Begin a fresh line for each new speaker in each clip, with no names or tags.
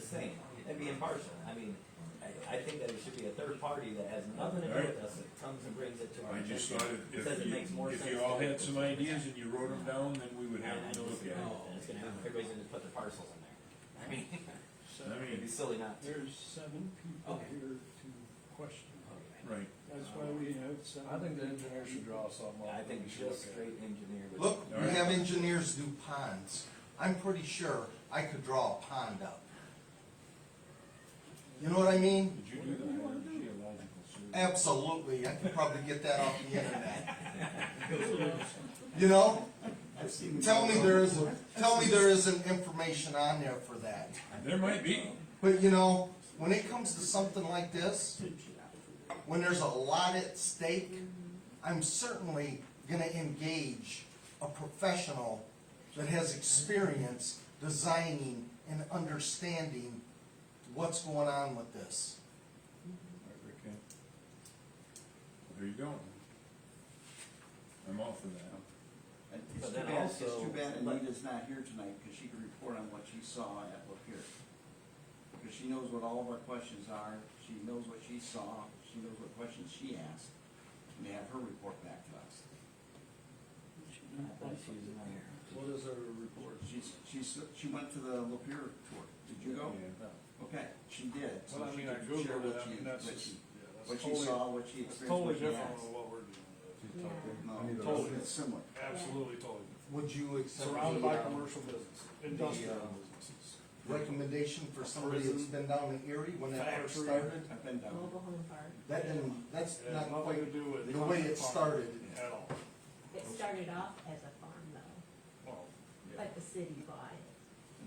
saying, and be impartial. I mean, I, I think that it should be a third party that has nothing to do with us, that comes and brings it to our
I just
attention.
thought if,
Says
if
it
you,
makes more
if
sense
you all
to-
had some ideas and you wrote them down, then we would
I, I
have to look
disagree
at
with
it.
that. It's gonna have, everybody's gonna put their parcels in there. I mean,
I
it'd be
mean,
silly not to.
There's seven people
Okay.
here to question.
right,
That's why we have seven.
I think the engineer should draw something up.
I
that
think
we should
just
look
straight engineer would.
Look,
All
we
right.
have engineers do ponds. I'm pretty sure I could draw a pond up. You know what I mean?
did you do the geological survey?
Absolutely, I could probably get that off the internet. You know? Tell me there isn't, tell me there isn't information on there for that.
There might be,
But you know, when it comes to something like this, when there's a lot at stake, I'm certainly gonna engage a professional that has experience designing and understanding what's going on with this.
okay. There you go. I'm all for that.
It's
But
too
then
bad, it's
also-
too bad
but-
Anita's not here tonight, because she could report on what she saw at Lapeer. Because she knows what all of our questions are, she knows what she saw, she knows what questions she asked, and have her report back to us.
I thought she was in there.
at. What is our report?
She's, she's, she went to the Lapeer tour, did you go?
Yeah.
Okay, she did, so
Well, I
she
mean, I
could share
Googled it,
what
I
she,
mean,
what
that's
she,
just, yeah,
what
that's
she
totally,
saw, what she
that's
experienced,
totally
what she
different
asked.
than what we're doing.
No,
those.
totally similar.
Absolutely totally different. uh,
Would you accept
Surrounded by
the um,
commercial business, industrial businesses.
recommendation for somebody that's been down in Erie when that first
Factory.
started?
I've been down.
Mobile home park.
That didn't, that's
It had
not
nothing to
quite
do with.
the way it
farm
started.
At all.
It started off as a farm though,
Well, yeah,
but the city bought it.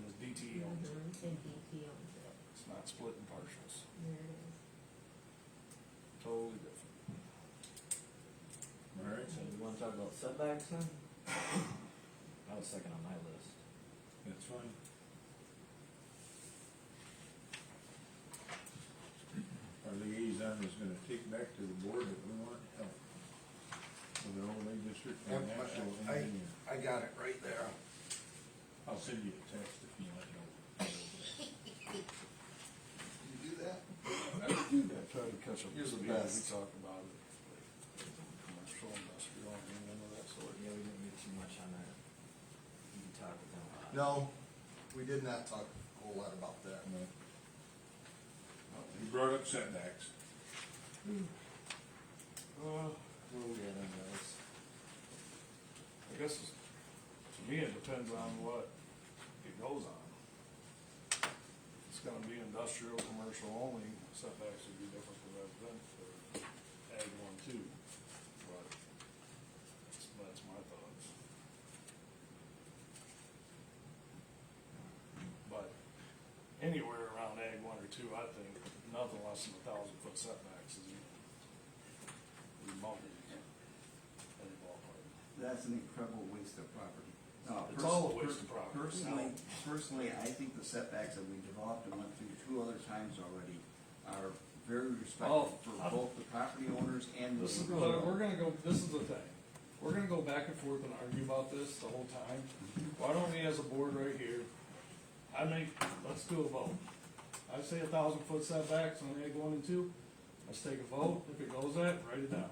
and it's DT owned, it.
Mhm, And DT owns it.
it's not split in partials,
There it is.
totally different.
All right,
So you wanna talk about setbacks then? That was second on my list.
that's fine. Our liaison is gonna take back to the board that we want help with the overlay district and
Yep, I-
actual
I-
engineer.
I got it right there.
I'll send you a text if you let know.
You do that?
Yeah, try to catch up.
You're the
We-
best.
We talk about it, like, commercial, industrial, and none of that sort.
Yeah, we didn't do too much on that. You can talk with them. about it.
No, we did not talk a whole lot about that.
No. You brought up setbacks.
Uh,
Where were we at on those?
I guess, it's- to me, it depends on what it goes on. If It's gonna be industrial, commercial only, setbacks would be different for residential, or ag one too, but that's, that's my thoughts. But anywhere around ag one or two, I think nothing less than a thousand foot setbacks is, is mounted in the ballpark.
That's an incredible waste of property. No,
It's
pers-
all a waste of
per-
property.
Personally, personally, I think the setbacks that we developed and went through two other times already are very respectful
Oh,
for
I'm-
both the property owners and the.
This is, but we're gonna go, this is the thing, we're gonna go back and forth and argue about this the whole time. Why don't we as a board right here, I make, let's do a vote. I say a thousand foot setbacks on egg one and two, let's take a vote, if it goes that, write it down.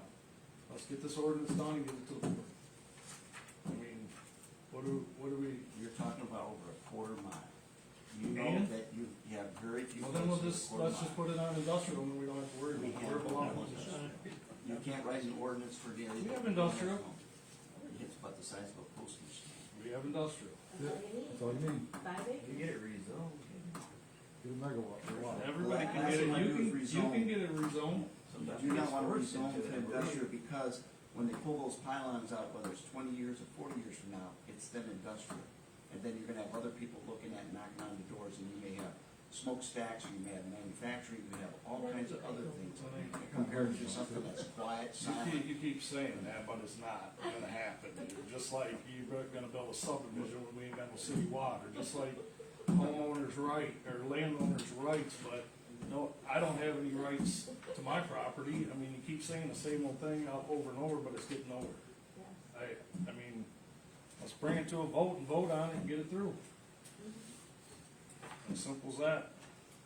Let's get this ordinance done and get it to the board. I mean, what do, what do we,
You're talking about over a quarter mile. You know
And?
that you you have very few.
well then we'll
places
just,
over a
let's just
quarter
put it on industrial and we don't have to worry
mile. We
about
have
where it
no
belongs.
industrial. You can't write an ordinance for daily.
We have industrial.
It's about the size of a postage stamp.
We have industrial,
That's all you need.
all you need,
Five
If
acres.
you get it rezoned, and
get a megawatt, for
everybody can
That's
get it,
what I do
you can,
with
you
rezone.
can get it rezoned.
You do not want
Sometimes
to rezone
it's
to
forced into
industrial because when they pull those pylons out, whether it's twenty years or forty years from now, it's then industrial. And then you're gonna have other people looking at knocking on the doors and you may have smokestacks, you may have manufacturing, you may have all kinds of other things compared to something that's quiet,
You
silent.
keep, you keep saying that, but it's not gonna happen, You're just like you're gonna build a subdivision when we ain't got no city water, just like homeowners' right, or landowners' rights, but no, I don't have any rights to my property, I mean, you keep saying the same old thing out over and over, but it's getting nowhere.
Yeah.
I, I mean, let's bring it to a vote and vote on it and get it through. As simple as that.